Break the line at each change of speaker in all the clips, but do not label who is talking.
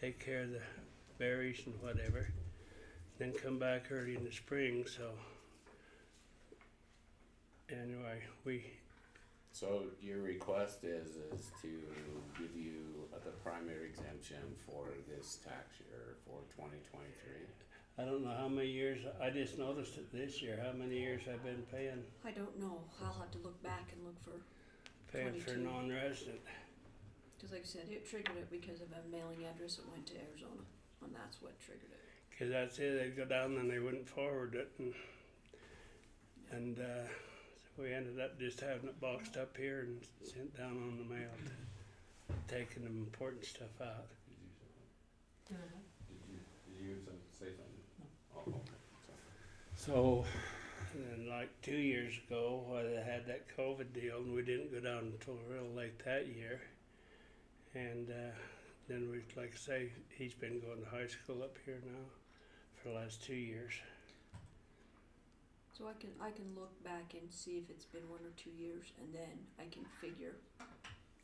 take care of the berries and whatever, then come back early in the spring, so. Anyway, we,
So your request is, is to give you the primary exemption for this tax year for twenty twenty-three?
I don't know how many years, I just noticed it this year, how many years I've been paying,
I don't know. I'll have to look back and look for,
paying for
22.
non-resident.
because like I said, it triggered it because of a mailing address that went to Arizona, and that's what triggered it.
Cause that's it, they'd go down and they wouldn't forward it and, and, uh, so we ended up just having it boxed up here and sent down on the mail to, taking the important stuff out.
Did you, did you, did you say something? Oh, So,
And then like two years ago, when they had that COVID deal and we didn't go down until real late that year. And, uh, then we, like I say, he's been going to high school up here now for the last two years.
So I can I can look back and see if it's been one or two years, and then I can figure out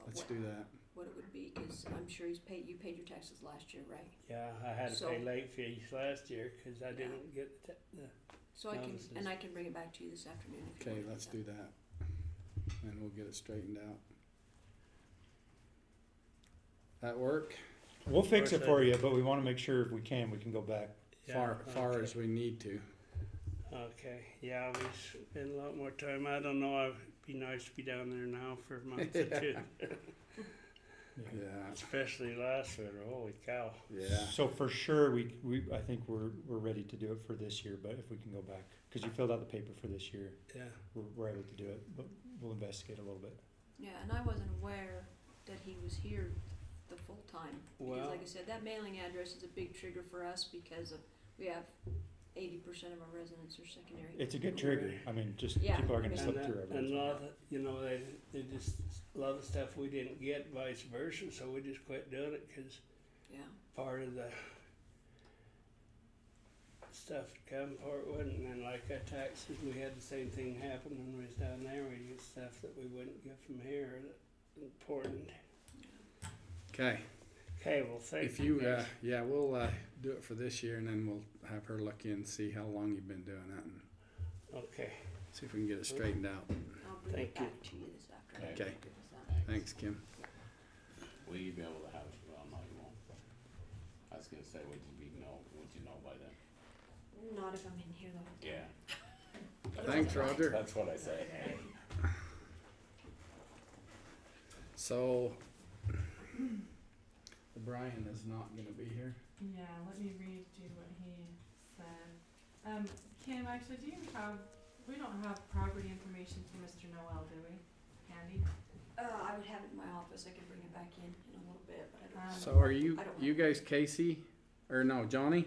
Let's
what,
do that.
what it would be. Because I'm sure he's paid. You paid your taxes last year, right?
Yeah, I had to
So-
pay late fees last year, cause I
Yeah.
didn't get the, the
So I can
Notices.
and I can bring it back to you this afternoon. If you
Okay,
want
let's do that. And we'll get it straightened out. That work?
We'll fix
Or
it for
should-
you, but we wanna make sure if we can, we can go back.
Far,
Yeah,
far
okay.
as we need to.
Okay, yeah, we spend a lot more time. I don't know, it'd be nice to be down there now for a month or two,
Yeah,
especially last winter, holy cow.
yeah.
So for sure, we, we, I think we're, we're ready to do it for this year, but if we can go back, cause you filled out the paper for this year,
Yeah,
we're, we're able to do it, but we'll investigate a little bit.
Yeah, and I wasn't aware that he was here the full time. Because
Well-
like I said, that mailing address is a big trigger for us because of, we have eighty percent of our residents are secondary.
It's a good trigger, I mean, just,
Yeah,
people are
I
gonna
mean-
and,
slip
that,
through
and a
everything.
lot of, you know, they, they just, a lot of stuff we didn't get, vice versa, so we just quit doing it because
Yeah,
part of the stuff would come, part wouldn't, and like our taxes, we had the same thing happen when we was down there, we get stuff that we wouldn't get from here, that important.
Okay,
Okay, well, thank you.
if you, uh,
guys.
yeah, we'll, uh, do it for this year and then we'll have her look in, and see how long you've been doing that and
Okay.
see if we can get it straightened out.
I'll bring it
Thank you.
back to you this afternoon. uh,
Okay,
Is that-
thanks, Kim.
Will you be able to have, well, no, you won't. I was gonna say, would you be, know, would you know by then?
Not if I'm in here the whole time.
Yeah,
Thanks, Roger.
that's what I say.
So, Brian is not gonna be here.
Yeah, let me read you what he said. Um, Kim, actually, do you have, we don't have property information for Mr. Noel, do we? Andy?
Uh, I would have it in my office, I could bring it back in in a little bit, but I don't.
Um,
So are you,
I don't
you
want-
guys Casey, or no, Johnny?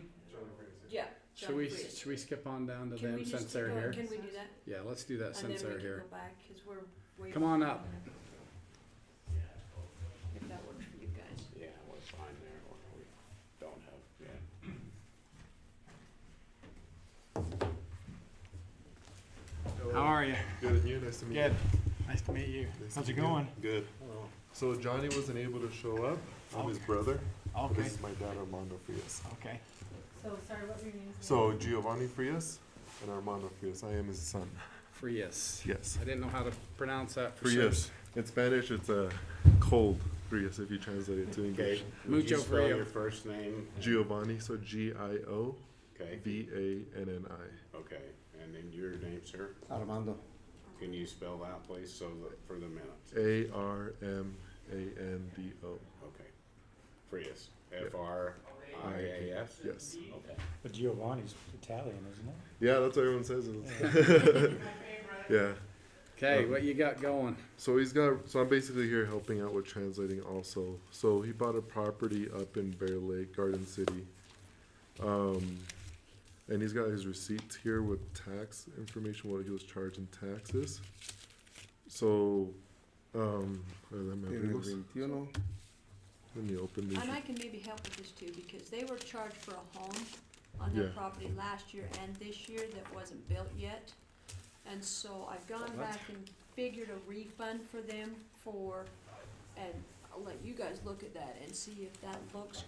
Yeah.
Should
John,
we,
please.
should we skip on down to
Can we
them
just
since
keep
they're
going?
here?
Can we do that?
Yeah, let's do that
And
since
then
they're
we can
here.
go back, cause we're way.
Come on up.
If that works for you guys.
Yeah, we're fine there, or we don't have, yeah.
How are you?
Good, and you? Nice to meet
Good,
Nice to meet you.
you. Nice to
How's it
meet you.
going?
Good. So Johnny wasn't able to show up. I'm his brother. but
okay,
This is my dad, Armando Frias.
okay.
So, sorry, what were your names? again?
So Giovanni Frias and Armando Frias. I am his son.
Frias.
Yes.
I didn't know how to pronounce that. for sure.
Frias. In Spanish, it's a cold Frias if you translate it to English.
Okay, would
Mucho
you spell
frio.
your first name?
Giovanni, so G I O
Okay,
V A N N I.
okay, and then your name, sir?
Armando.
Can you spell that, please, so that, for the minutes?
A R M A N D O.
Okay. Frias, F R I A S?
Yes.
Okay.
But Giovanni's Italian, isn't it?
Yeah, that's what everyone says. yeah.
Okay,
Um,
what you got going?
So he's got. So I'm basically here helping out with translating also. So he bought a property up in Bear Lake, Garden City, um, and he's got his receipts here with tax information, what he was charged in taxes. So, um, where are them at?
Tiene
Let
21.
me open these.
And I can maybe help with this too, because they were charged for a home on their
Yeah.
property last year and this year that wasn't built yet. And so I've gone
Well, that's-
back and figured a refund for them for, and I'll let you guys look at that and see if that looks